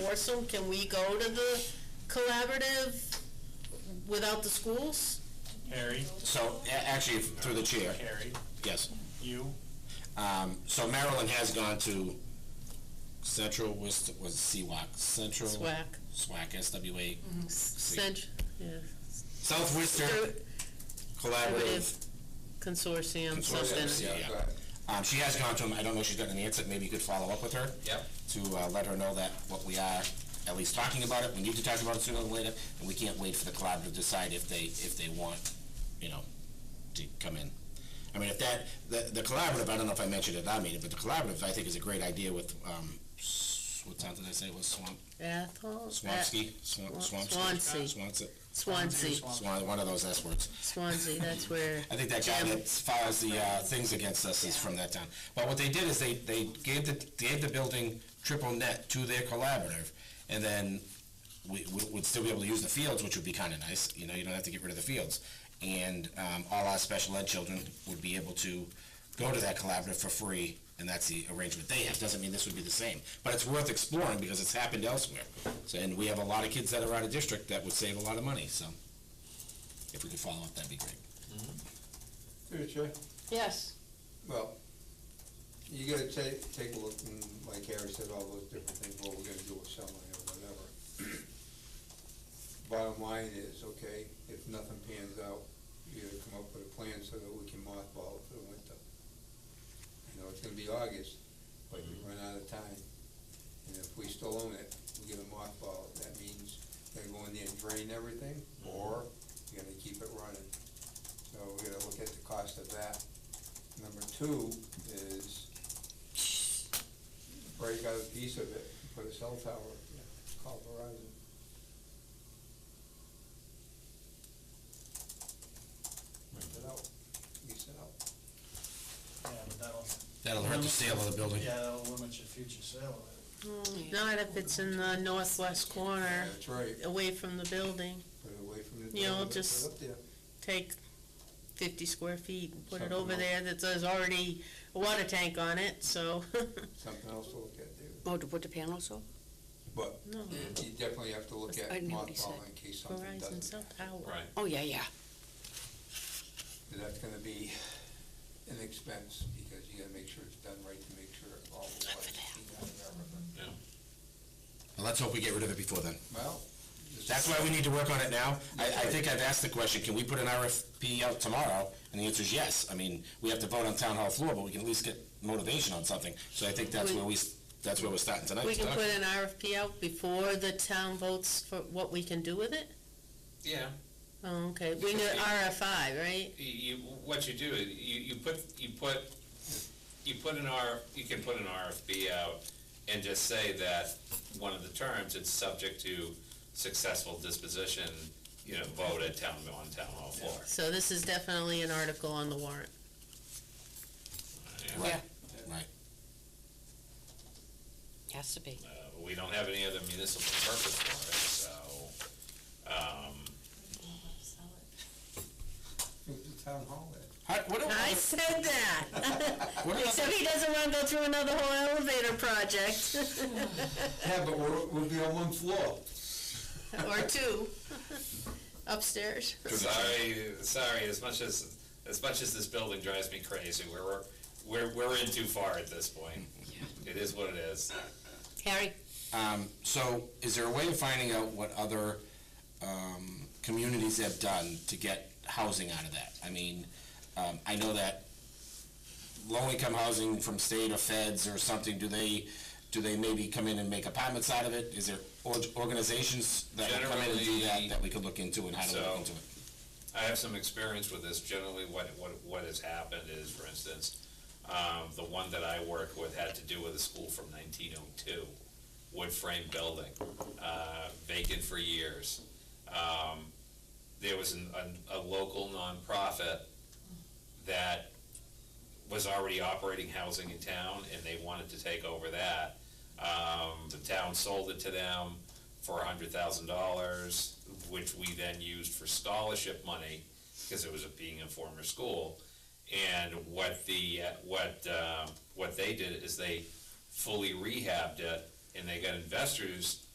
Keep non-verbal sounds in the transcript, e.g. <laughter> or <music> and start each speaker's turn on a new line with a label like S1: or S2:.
S1: Borstal, can we go to the collaborative without the schools?
S2: Harry,
S3: So, a- actually, if- through the chair,
S2: Harry,
S3: yes.
S2: you,
S3: Um, so Maryland has gone to Central, was, was CWAC, Central?
S1: SWAC,
S4: Mm-hmm.
S3: SWAC, SWA,
S1: Cent, yeah,
S3: Southwestern Collaborative
S1: Collaborative Consortium,
S3: Consortium,
S1: something.
S3: yeah, yeah. Um, she has gone to them, I don't know if she's gotten an answer, maybe you could follow up with her?
S5: Yep.
S3: To, uh, let her know that what we are, at least talking about it, we need to talk about it sooner than later, and we can't wait for the collaborative to decide if they, if they want, you know, to come in. I mean, if that, the, the collaborative, I don't know if I mentioned it at our meeting, but the collaborative, I think, is a great idea with, um, s- what town did I say, it was Swamp,
S1: Athol?
S3: Swampski? Swan-
S1: Swan-
S3: Swampski?
S1: Swansea.
S3: Swansea.
S1: Swansea,
S3: Swan, one of those S words.
S1: Swansea, that's where,
S3: I think that guy
S1: Jim.
S3: that files the uh, things against us is from that town. But what they did is they, they gave the, gave the building triple net to their collaborative, and then we, we would still be able to use the fields, which would be kind of nice, you know, you don't have to get rid of the fields. And um, all our special ed children would be able to go to that collaborative for free, and that's the arrangement they have. Doesn't mean this would be the same, but it's worth exploring because it's happened elsewhere. So, and we have a lot of kids that are out of district that would save a lot of money, so if we could follow up, that'd be great.
S4: Through the chair.
S1: yes,
S4: Well, you gotta ta- take a look, and like Harry said, all those different things, what we're gonna do with Selma or whatever. <clears throat> Bottom line is, okay, if nothing pans out, you gotta come up with a plan so that we can mothball it for the winter. You know, it's gonna be August, but we run out of time, and if we still own it, we get a mothball, it. that means they're going there and drain everything, or you're gonna keep it running. So we gotta look at the cost of that. Number two is break out a piece of it, put a cell tower, up there. call Verizon. Rent it out, lease it out.
S6: Yeah, but that'll.
S3: That'll hurt the sale of the building.
S6: Yeah, that'll limit your future sale of it.
S1: Mm, not if it's in the northwest corner,
S4: That's right,
S1: away from the building.
S4: put it away from the
S1: You know,
S4: building, put
S1: just
S4: it up there.
S1: Take fifty square feet and put it
S4: Something
S1: over
S4: else.
S1: there that there's already a water tank on it, so,
S4: Something else to look at there.
S7: Oh, to put the panels up?
S4: But
S1: no,
S4: you definitely have to look at
S7: I knew what he said.
S4: mothballing in case something
S1: Verizon
S4: doesn't.
S1: cell tower.
S5: right,
S7: Oh, yeah, yeah.
S4: And that's gonna be an expense, because you gotta make sure it's done right to make sure all the lights are out of everything.
S5: yeah.
S3: Well, let's hope we get rid of it before then.
S4: Well. just-
S3: That's why we need to work on it now. I, I think I've asked the question, can we put an RFP out tomorrow? And the answer is yes. I mean, we have to vote on town hall floor, but we can at least get motivation on something. So I think that's where we, s- that's where we're starting tonight.
S1: We can
S3: Start.
S1: put an RFP out before the town votes for what we can do with it?
S5: Yeah,
S1: Oh, okay, we need RFI, right?
S5: you, you- what you do, is you, you put, you put, you put an R, you can put an RFP out and just say that one of the terms, it's subject to successful disposition, you know, vote at town, on town hall floor.
S1: So this is definitely an article on the warrant.
S5: Yeah.
S3: Right, right.
S7: Has to be.
S5: Uh, We don't have any other municipal purpose for it, so, um,
S4: Move to town hall then.
S3: How- What do,
S1: I said <laughs> that,
S3: what do
S1: except he doesn't wanna go through another whole elevator project,
S4: Yeah, but we're, we'll be on one floor.
S1: or <laughs> two, upstairs.
S5: sorry, sorry, as much as, as much as this building drives me crazy, we're, we're, we're in too far at this point. It is what it is.
S7: Harry?
S3: Um, so is there a way of finding out what other, um, communities have done to get housing out of that? I mean, um, I know that low-income housing from state or feds or something, do they, do they maybe come in and make apartments out of it? Is there or- organizations that would come in and do that,
S5: Generally,
S3: that we could look into and how to
S5: so-
S3: look into it?
S5: I have some experience with this. Generally, what, what, what has happened is, for instance, um, the one that I work with had to do with a school from nineteen oh two, wood frame building, uh, vacant for years. Um, there was an, a, a local nonprofit that was already operating housing in town, and they wanted to take over that. Um, the town sold it to them for a hundred thousand dollars, which we then used for scholarship money, because it was a- being a former school. And what the, uh, what, uh, what they did is they fully rehabbed it, and they got investors